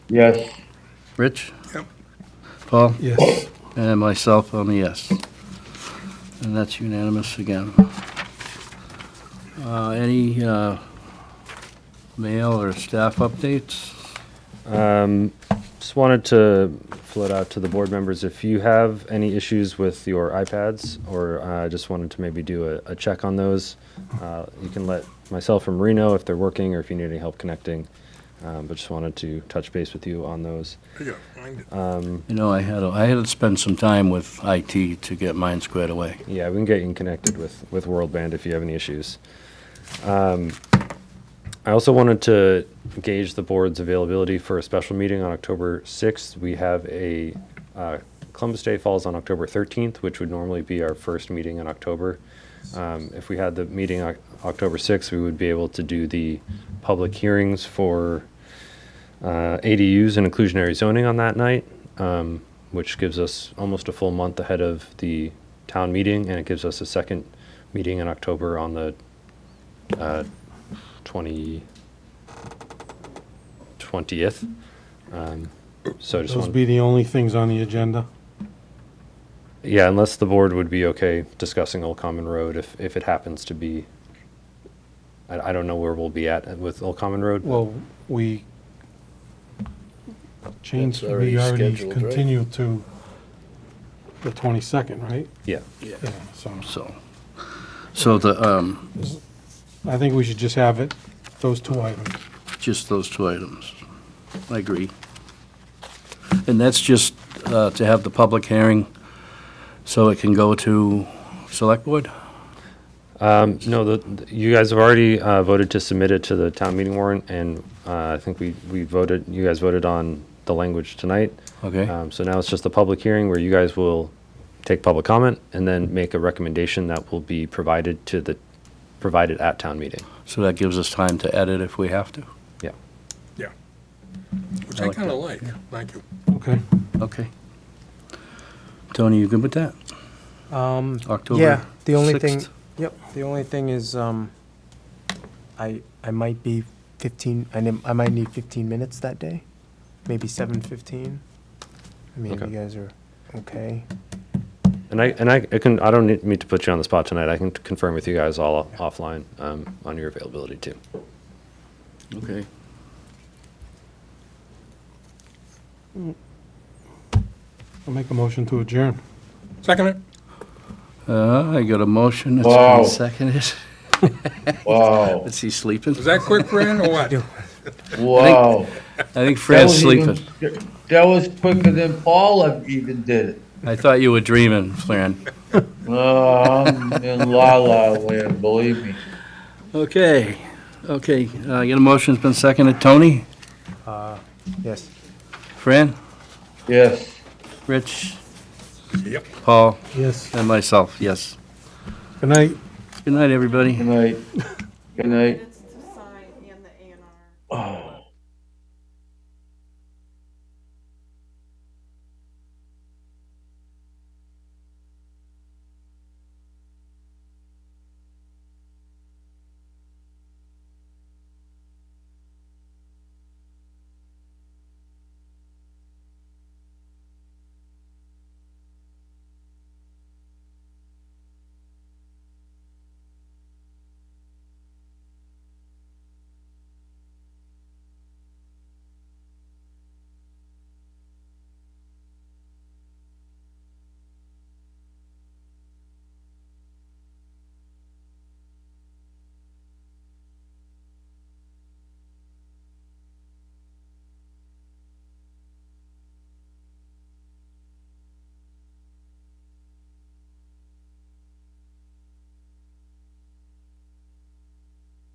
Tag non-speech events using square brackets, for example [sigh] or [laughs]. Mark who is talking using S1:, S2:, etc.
S1: Yes.
S2: Rich?
S3: Yep.
S2: Paul?
S3: Yes.
S2: And myself, I'm a yes. And that's unanimous again. Uh, Any uh, mail or staff updates?
S4: Um, just wanted to float out to the board members if you have any issues with your iPads, or I uh, just wanted to maybe do a, a check on those. Uh, you can let myself and Marie know if they're working or if you need any help connecting. Um, but just wanted to touch base with you on those.
S3: I gotta find it.
S2: You know, I had, a- I had to spend some time with IT to get mine squared away.
S4: Yeah, we can get you connected with, with World Band if you have any issues. Um, I also wanted to gauge the board's availability for a special meeting on October 6th. We have a, uh, Columbus Day falls on October 13th, which would normally be our first meeting in October. Um, If we had the meeting on October 6th, we would be able to do the public hearings for uh, ADUs and inclusionary zoning on that night, um, which gives us almost a full month ahead of the town meeting, and it gives us a second meeting in October on the uh, 20, 20th. Um, So I just
S5: Those
S4: want,
S5: be the only things on the agenda?
S4: yeah, unless the board would be okay discussing Old Common Road if, if it happens to be, I, I don't know where we'll be at with Old Common Road. but-
S5: Well, we changed,
S1: That's
S5: we
S1: already
S5: already
S1: scheduled, right?
S5: continued to the 22nd, right?
S4: Yeah.
S5: Yeah. So
S2: So, so the, um,
S5: I think we should just have it, those two items.
S2: just those two items. I agree. And that's just uh, to have the public hearing so it can go to Select Board?
S4: Um, No, the- the, you guys have already uh, voted to submit it to the town meeting warrant, and uh, I think we, we voted, you guys voted on the language tonight.
S2: Okay?
S4: Um, So now it's just a public hearing where you guys will take public comment and then make a recommendation that will be provided to the, provided at town meeting.
S2: So that gives us time to edit if we have to.
S4: Yeah.
S3: Which
S2: I
S3: I
S2: like
S3: kinda
S2: that.
S3: like. Thank you.
S5: Okay.
S2: Okay. Tony, you good with that?
S6: Um,
S2: October
S6: yeah, the only thing,
S2: 6th?
S6: yep, the only thing is, um, I, I might be fifteen, I nim- I might need fifteen minutes that day, maybe seven fifteen. I mean, if you
S4: Okay.
S6: guys are okay.
S4: And I, and I I can, I don't need me to put you on the spot tonight. I can confirm with you guys all offline um, on your availability too.
S2: Okay.
S5: I'll make a motion to adjourn.
S3: Second it?
S2: Uh, I got a motion. It's
S1: Wow.
S2: been seconded. [laughs]
S1: Wow.
S2: Is he sleeping?
S3: Was that quick, Fran, or what?
S1: Wow.
S2: I think
S1: That
S2: Fred's
S1: was even-
S2: sleeping.
S1: That was quicker than Paul even did it.
S2: I thought you were dreaming, Fran.
S1: Oh, I'm in la la land, believe me.
S2: Okay, okay. Uh, I got a motion's been seconded. Tony,
S6: Yes.
S2: Fran,
S1: Yes.
S2: Rich,
S3: Yep.
S2: Paul,
S5: Yes.
S2: and myself, yes.
S5: Good night.
S2: Good night, everybody.
S1: Good night. Good night.